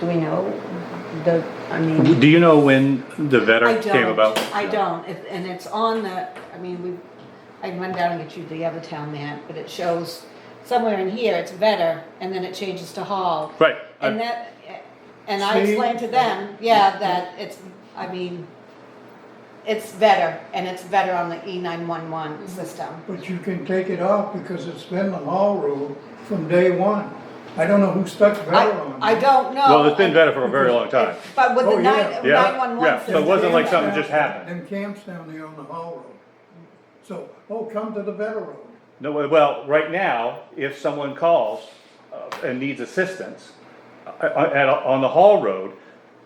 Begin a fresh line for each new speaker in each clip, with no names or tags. do we know the, I mean?
Do you know when the
I
veteran
don't.
came about?
I don't, If- and it's on the, I mean, we, I can run down and get you the other town map, but it shows somewhere in here, it's better, and then it changes to Hall.
Right.
And
I-
that, and I
See?
explained to them, yeah, that it's, I mean, it's better, and it's better on the E nine one one system.
But you can take it off because it's been the law rule from day one. I don't know who stuck
I,
veteran on.
I
it.
don't know.
Well, it's been better for a very long time.
But with
Oh,
the
yeah.
nine,
Yeah,
nine one one
yeah,
system.
so it wasn't like something
Camps
just
down-
happened.
Them camps down there on the hall road. So, oh, come to the veteran road.
No, well, right now, if someone calls uh, and needs assistance uh, at, on the Hall Road,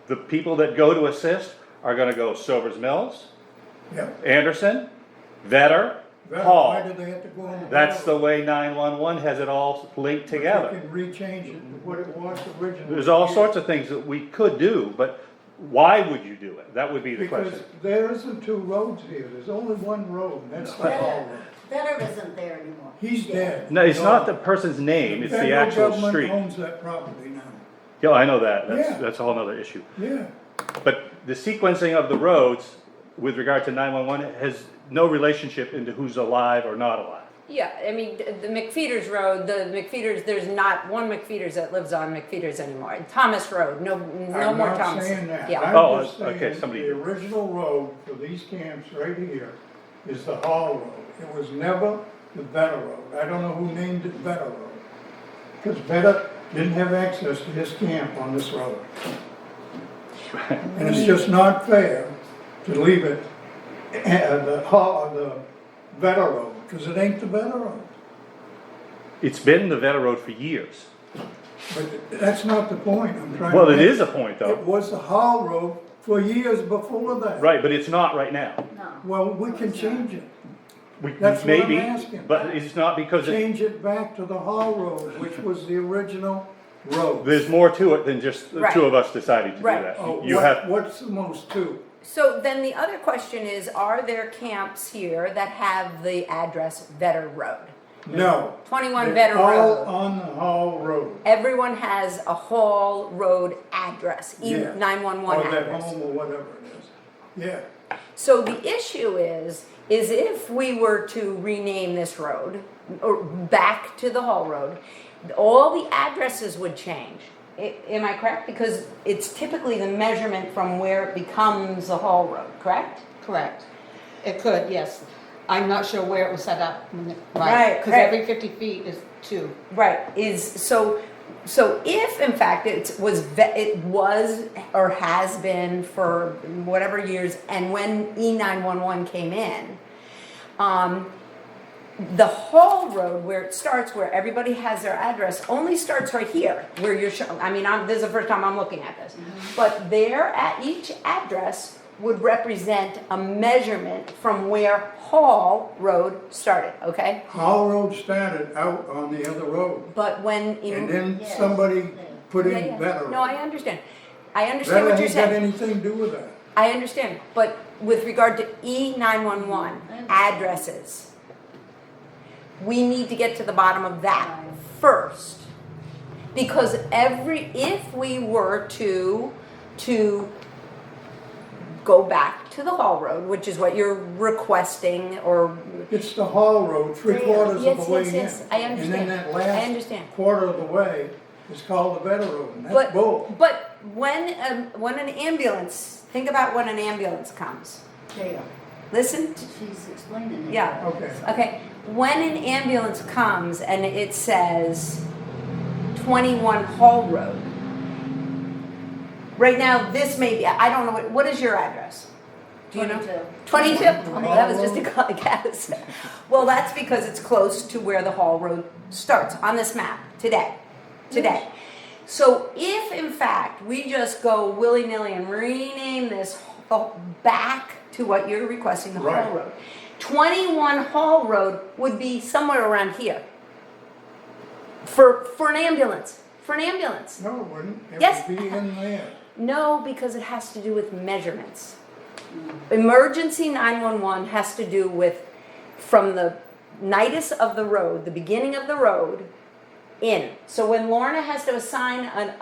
the people that go to assist are gonna go Silver's Mills,
Yeah.
Anderson, Vetter,
Veteran, Why
Hall.
did they have to go on the?
That's the
Hall Road?
way nine-one-one has it all linked
They
together.
can rechange it to what it was originally.
There's all sorts of things that we could do, but why would you do it? That would be the
Because
question.
there isn't two roads here, there's only one road, and that's the hall road.
Better isn't there anymore.
He's dead.
No, it's not the person's name, it's the actual
Federal
street.
government owns that property now.
Yeah, I know that,
Yeah.
that's, that's a whole nother issue.
Yeah,
But the sequencing of the roads with regard to nine-one-one has no relationship into who's alive or not alive.
Yeah, I mean, th- the McFeeters Road, the McFeeters, there's not one McFeeters that lives on McFeeters anymore. Thomas Road, no, no
I'm
more
not
Thomas.
saying that.
Yeah,
Oh,
I'm just
okay,
saying
somebody-
the original road for these camps right here is the Hall Road. It was never the Better Road. I don't know who named it Better Road. Because Better didn't have access to his camp on this road. And it's just not fair to leave it, uh, the Hall, the Better Road, because it ain't the Better Road.
It's been the Vetter Road for years.
But that's not the point I'm trying to
Well, it
make.
is a point
It
though,
was the Hall Road for years before that.
right, but it's not right now.
No.
Well, we can change it,
We,
That's what I'm
maybe,
asking.
but it's not because it-
change it back to the Hall Road, which was the original road.
there's more to it than just the
Right.
two of us deciding to do
Right.
that.
Oh,
You
what-
have,
What's the most two?
so then the other question is, are there camps here that have the address Vetter Road?
No.
Twenty-one
They're
Vetter
All
Road.
on the Hall Road,
Everyone has a Hall Road address, E
Yeah.
nine-one-one
or that
address.
home or whatever it is. Yeah,
So the issue is, is if we were to rename this road, or back to the Hall Road, all the addresses would change. A- Am I correct? Because it's typically the measurement from where it becomes a Hall Road, correct?
Correct. It could, yes. I'm not sure where it was set up. when it-
Right,
Because
right.
every fifty feet is two.
Right, is, so, so if in fact it was, ve- it was or has been for whatever years, and when E nine one one came in, um, the whole road where it starts, where everybody has their address, only starts right here, where you're showing, I mean, I'm, this is the first time I'm looking at this. But there at each address would represent a measurement from where Hall Road started, okay?
Hall Road started out on the other road,
But when. in-
and then
Yes.
somebody put
Yeah,
in
yeah.
Better Road.
No, I understand. I understand
Better
what you're
ain't got
saying.
anything to do with that.
I understand, but with regard to E nine one one addresses, we need to get to the bottom of that first. Because every, if we were to, to go back to the Hall Road, which is what you're requesting or
It's the Hall Road, three
Yeah,
quarters
yes,
of the way in.
yes, yes, I understand.
And then that
I
last
understand.
quarter of the way is called the Better Road, and that's
But,
bull.
but when, um, when an ambulance, think about when an ambulance comes.
There,
Listen,
she's explaining it.
Yeah.
Okay.
okay, when an ambulance comes and it says twenty-one Hall Road. Right now, this may be, I don't know, what, what is your address? Do you know?
Twenty-two.
Twenty-two,
Hall
well, that was just a
Road.
gu- guess. Well, that's because it's close to where the Hall Road starts on this map today, today. So if in fact we just go willy-nilly and rename this ho- back to what you're requesting, the Hall
Right.
Road. Twenty-one Hall Road would be somewhere around here. For, for an ambulance, for an ambulance.
No, it wouldn't.
Yes.
It would be in there.
No, because it has to do with measurements. Emergency 911 has to do with from the nidus of the road, the beginning of the road, in. So when Lorna has to assign an